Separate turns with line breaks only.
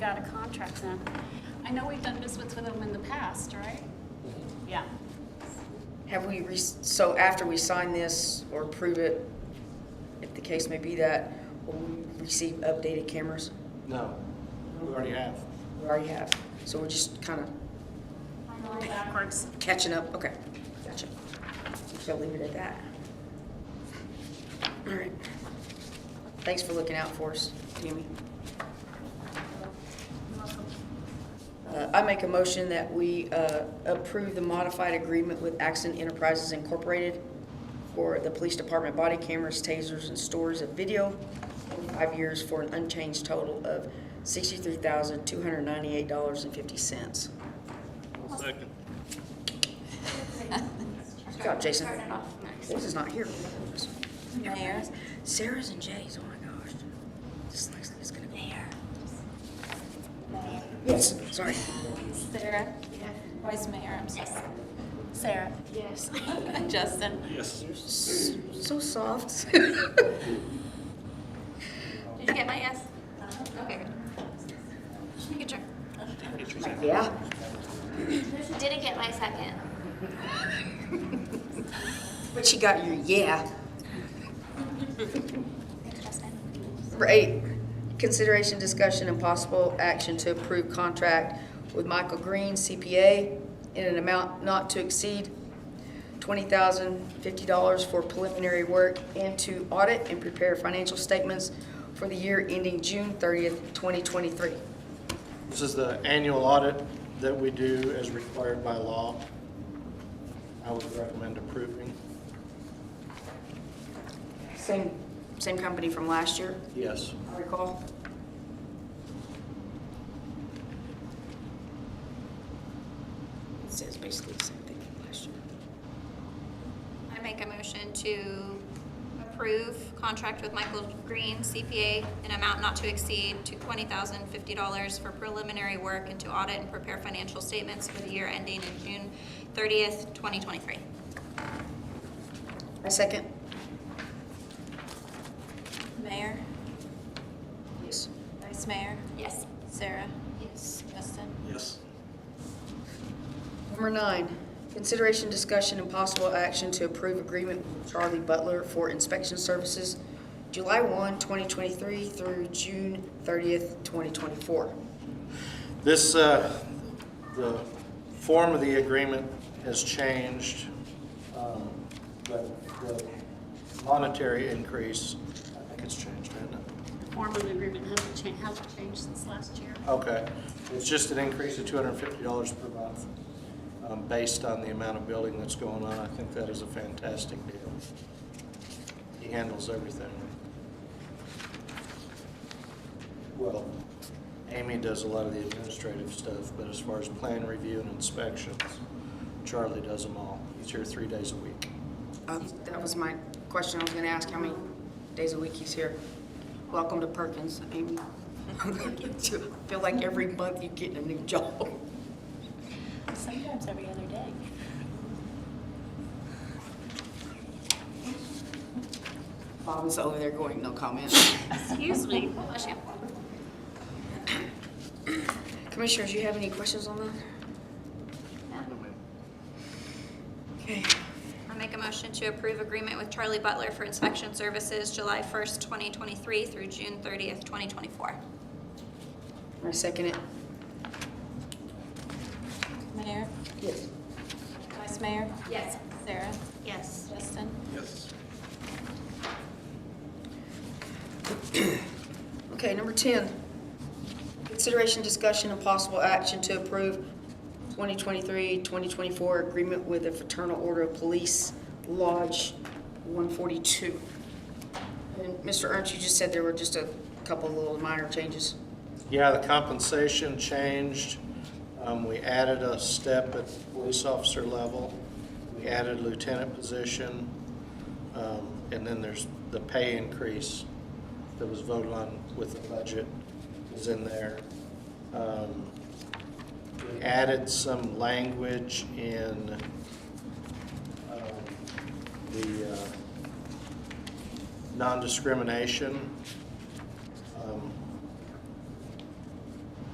got a contract then. I know we've done business with them in the past, right? Yeah.
Have we, re- so after we sign this or approve it, if the case may be that, will we receive updated cameras?
No, we already have.
We already have, so we're just kind of
I'm a little backwards.
catching up, okay, gotcha. Shall leave it at that. All right. Thanks for looking out for us, Tammy. Uh, I make a motion that we uh, approve the modified agreement with Accent Enterprises Incorporated for the police department body cameras, tasers, and stores of video in five years for an unchanged total of $63,298.50.
Second.
Good job, Jason.
Turn it off next.
This is not here.
Mayor?
Sarah's and Jay's, oh my gosh. This looks like it's gonna go. Mayor. Yes, sorry.
Sarah? Vice Mayor, I'm so sorry.
Sarah? Yes.
Justin?
Yes.
S- So soft.
Did you get my yes? Okay, good. Make a sure.
Yeah.
Didn't get my second.
But she got your yeah.
Thank you, Justin.
Number eight, consideration, discussion, and possible action to approve contract with Michael Green CPA in an amount not to exceed twenty thousand fifty dollars for preliminary work and to audit and prepare financial statements for the year ending June thirtieth, twenty twenty-three.
This is the annual audit that we do as required by law. I would recommend approving.
Same, same company from last year,
Yes.
I recall. It says basically the same thing from last year.
I make a motion to approve contract with Michael Green CPA in amount not to exceed to twenty thousand fifty dollars for preliminary work and to audit and prepare financial statements for the year ending in June thirtieth, twenty twenty-three.
I second.
Mayor,
Yes.
Vice Mayor,
Yes.
Sarah. Yes. Justin.
Yes.
Number nine, consideration, discussion, and possible action to approve agreement with Charlie Butler for inspection services July 1, 2023 through June 30th, 2024.
This, uh, the form of the agreement has changed, um, but the monetary increase, I think it's changed, hasn't it?
The form of the agreement hasn't changed, hasn't changed since last year.
Okay. It's just an increase of $250 per month um, based on the amount of building that's going on. I think that is a fantastic deal. He handles everything. Well, Amy does a lot of the administrative stuff, but as far as plan review and inspections, Charlie does them all. He's here three days a week.
Uh, That was my question I was going to ask, how many days a week he's here. Welcome to Perkins, Amy. Feel like every month you get a new job.
Sometimes every other day.
Bob's over there going, no comment.
Excuse me.
Bless you.
Commissioners, you have any questions on that? Okay.
I make a motion to approve agreement with Charlie Butler for inspection services July 1st, 2023 through June 30th, 2024.
I second it.
Mayor,
Yes.
Vice Mayor,
Yes.
Sarah,
Yes.
Justin.
Yes.
Okay, number 10, consideration, discussion, and possible action to approve 2023-2024 agreement with the Fraternal Order of Police Lodge 142. And Mr. Ernst, you just said there were just a couple little minor changes.
Yeah, the compensation changed. Um, we added a step at police officer level. We added lieutenant position. Um, and then there's the pay increase that was voted on with the budget is in there. Um, we added some language in, um, the, uh, non-discrimination um,